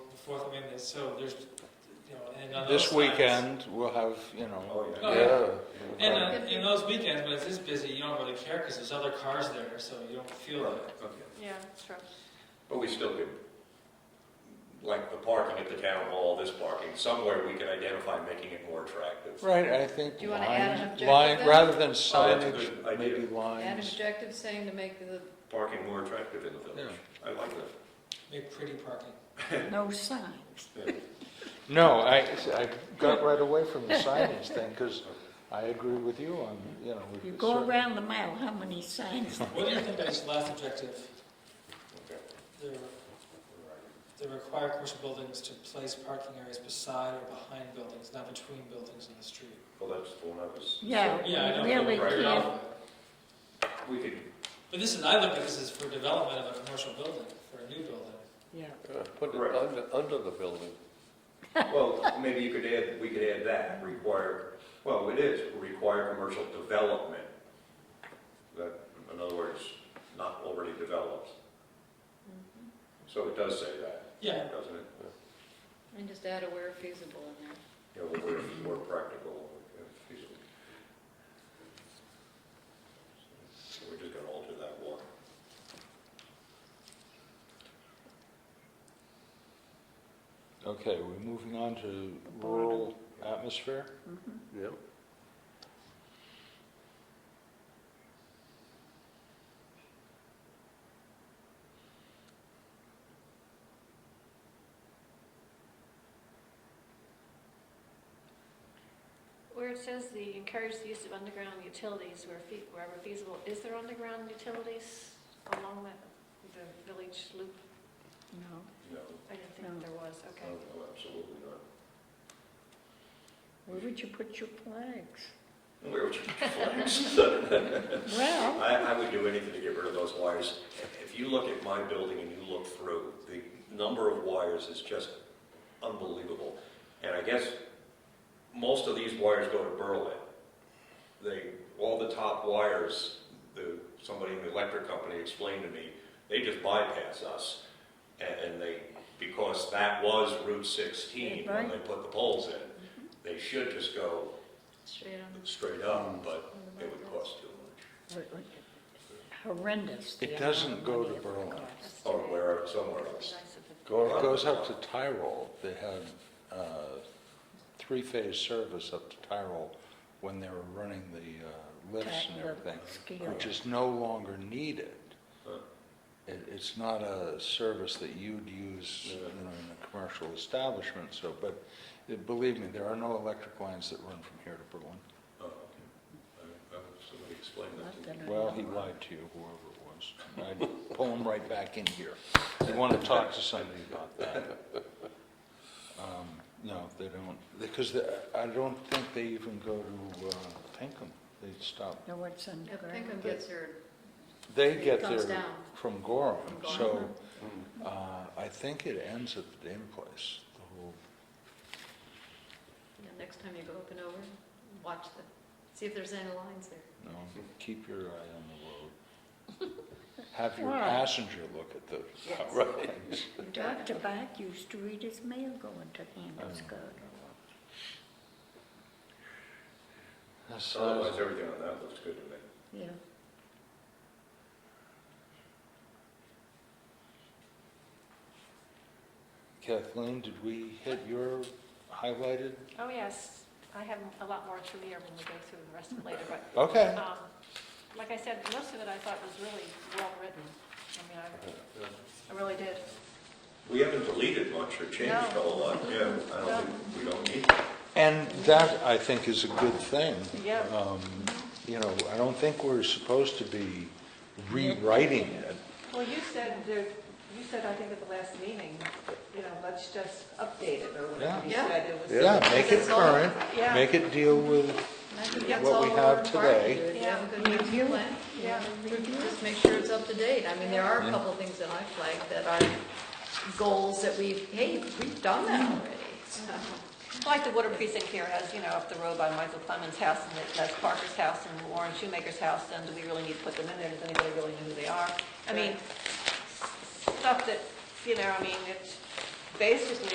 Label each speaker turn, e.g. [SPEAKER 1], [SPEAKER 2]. [SPEAKER 1] welcome in this, so there's, you know, and on those
[SPEAKER 2] This
[SPEAKER 1] times-
[SPEAKER 2] weekend, we'll have, you know,
[SPEAKER 3] Oh, yeah. uh,
[SPEAKER 1] Oh,
[SPEAKER 2] yeah.
[SPEAKER 1] And on, in those weekends, when it's this busy, you don't really care, because there's other cars there, so you don't feel
[SPEAKER 3] Right,
[SPEAKER 1] it.
[SPEAKER 3] okay.
[SPEAKER 4] Yeah, that's true.
[SPEAKER 3] But we still could, like the parking at the town hall, this parking, somewhere we can identify making it more attractive.
[SPEAKER 2] Right, I think
[SPEAKER 4] Do you wanna add an
[SPEAKER 2] lines,
[SPEAKER 4] objective
[SPEAKER 2] line,
[SPEAKER 4] then?
[SPEAKER 2] rather than
[SPEAKER 3] Oh, that's a good
[SPEAKER 2] signage,
[SPEAKER 3] idea.
[SPEAKER 2] maybe
[SPEAKER 4] An
[SPEAKER 2] lines.
[SPEAKER 4] objective saying to make the,
[SPEAKER 3] Parking more attractive in the village. I like that.
[SPEAKER 1] Make pretty parking.
[SPEAKER 5] No signs.
[SPEAKER 3] Yeah.
[SPEAKER 2] No, I, I got right away from the signage thing, because I agree with you on, you know. we
[SPEAKER 5] You go
[SPEAKER 2] certainly-
[SPEAKER 5] around the mile, how many signs?
[SPEAKER 1] What do you think of this last objective?
[SPEAKER 3] Okay.
[SPEAKER 1] The, the require commercial buildings to place parking areas beside or behind buildings, not between buildings in the street.
[SPEAKER 3] Well, that's the one I was,
[SPEAKER 5] Yeah,
[SPEAKER 1] Yeah, I don't
[SPEAKER 5] we
[SPEAKER 1] feel
[SPEAKER 5] really
[SPEAKER 3] right
[SPEAKER 1] great
[SPEAKER 3] now.
[SPEAKER 5] can't.
[SPEAKER 1] about it.
[SPEAKER 3] we could,
[SPEAKER 1] But this is, I look at this as for development of a commercial building, for a new building.
[SPEAKER 5] Yeah.
[SPEAKER 6] Put it
[SPEAKER 3] Right.
[SPEAKER 6] under, under the building.
[SPEAKER 3] well, maybe you could add, we could add that, require, well, it is, require commercial development. That, in other words, not already developed.
[SPEAKER 4] mm-hmm,
[SPEAKER 3] So it does say that,
[SPEAKER 1] Yeah,
[SPEAKER 3] doesn't it?
[SPEAKER 4] and just add a where feasible in there.
[SPEAKER 3] You know, we're more practical, uh, feasible. So We're just gonna alter that one.
[SPEAKER 2] Okay, we're moving on to rural atmosphere.
[SPEAKER 5] Mm-hmm.
[SPEAKER 6] Yep.
[SPEAKER 7] Where it says the encourage the use of underground utilities where fe- wherever feasible, is there underground utilities along the, the village loop?
[SPEAKER 5] No,
[SPEAKER 3] No,
[SPEAKER 7] I didn't
[SPEAKER 5] No.
[SPEAKER 7] think there was,
[SPEAKER 2] Oh.
[SPEAKER 3] no,
[SPEAKER 7] okay.
[SPEAKER 3] no, absolutely not.
[SPEAKER 5] where would you put your flags?
[SPEAKER 3] Where would you put flags?
[SPEAKER 5] Well,
[SPEAKER 3] I, I would do anything to get rid of those wires. If you look at my building and you look through, the number of wires is just unbelievable. And I guess most of these wires go to Berlin. They, all the top wires, the, somebody in the electric company explained to me, they just bypass us. And, and they, because that was Route 16 when they put the poles in, they should just go
[SPEAKER 4] Straight on.
[SPEAKER 3] straight up, but it would cost too much.
[SPEAKER 5] horrendous. the
[SPEAKER 2] It doesn't go to
[SPEAKER 5] amount of money it
[SPEAKER 2] Berlin.
[SPEAKER 5] costs.
[SPEAKER 3] Or where, somewhere else.
[SPEAKER 7] Nice of it.
[SPEAKER 2] Go- It goes up to Tyrol. They had uh, three-phase service up to Tyrol when they were running the uh, lifts and
[SPEAKER 5] That
[SPEAKER 2] everything,
[SPEAKER 5] scale.
[SPEAKER 2] which is no longer needed.
[SPEAKER 3] Huh.
[SPEAKER 2] It, it's not a service that you'd use, uh, you know, in a commercial establishment, so, but uh, believe me, there are no electric lines that run from here to Berlin.
[SPEAKER 3] Oh, okay. I- I hope Somebody explain that
[SPEAKER 5] Not
[SPEAKER 3] to me.
[SPEAKER 5] that I
[SPEAKER 2] Well, he
[SPEAKER 5] know of.
[SPEAKER 2] lied to you, whoever it was. I'd pull him right back in here. You want to talk to somebody about that. Um, No, they don't, because the- I don't think they even go to uh, Pinkham. They stop,
[SPEAKER 5] No, it's underground.
[SPEAKER 4] Pinkham gets their,
[SPEAKER 2] they get
[SPEAKER 4] Comes
[SPEAKER 2] there
[SPEAKER 4] down.
[SPEAKER 2] from Gorham,
[SPEAKER 4] From
[SPEAKER 2] so
[SPEAKER 4] Gorham.
[SPEAKER 2] uh, I think it ends at the damn place, the whole,
[SPEAKER 4] yeah, next time you go up and over, watch the, see if there's any lines there.
[SPEAKER 2] no, keep your eye on the road. Have your
[SPEAKER 5] Why?
[SPEAKER 2] passenger look at the road.
[SPEAKER 5] Dr. Bach used to read his mail going to
[SPEAKER 2] Um,
[SPEAKER 5] Andrewsburg.
[SPEAKER 2] Hmm.
[SPEAKER 3] Otherwise, everything on that looks good to me.
[SPEAKER 5] Yeah,
[SPEAKER 2] Kathleen, did we hit your highlighted?
[SPEAKER 7] Oh, yes, I have a lot more to read when we go through the rest of it later, but
[SPEAKER 2] Okay.
[SPEAKER 7] Um, Like I said, most of it I thought was really well-written. I mean, I, I really did.
[SPEAKER 3] We haven't deleted much or changed a whole lot, yeah. I don't think, we don't need that.
[SPEAKER 2] And that, I think, is a good thing.
[SPEAKER 7] Yeah.
[SPEAKER 2] Um, You know, I don't think we're supposed to be rewriting it.
[SPEAKER 8] Well, you said there, you said, I think at the last meeting, you know, let's just update it or whatever you
[SPEAKER 4] Yeah.
[SPEAKER 8] said. It was-
[SPEAKER 2] Yeah, make it
[SPEAKER 4] It's all-
[SPEAKER 2] current,
[SPEAKER 7] yeah.
[SPEAKER 2] make it deal with,
[SPEAKER 4] And I think that's
[SPEAKER 2] What
[SPEAKER 4] all
[SPEAKER 2] we
[SPEAKER 4] we're
[SPEAKER 2] have
[SPEAKER 4] requiring
[SPEAKER 2] today.
[SPEAKER 4] you to do. Have a good master
[SPEAKER 5] Yeah.
[SPEAKER 4] plan.
[SPEAKER 7] Yeah.
[SPEAKER 4] Just make sure it's up to date. I mean, there are a
[SPEAKER 2] Yeah.
[SPEAKER 4] couple things that I flagged that are goals that we've, hey, we've done that already. So-
[SPEAKER 9] Like the water precinct here has, you know, up the road by Michael Clemens' house, and that- that's Parker's house and Warren Shoemaker's house, and do we really need to put them in there? Does anybody really know who they are? I mean, stuff that, you know, I mean, it's basically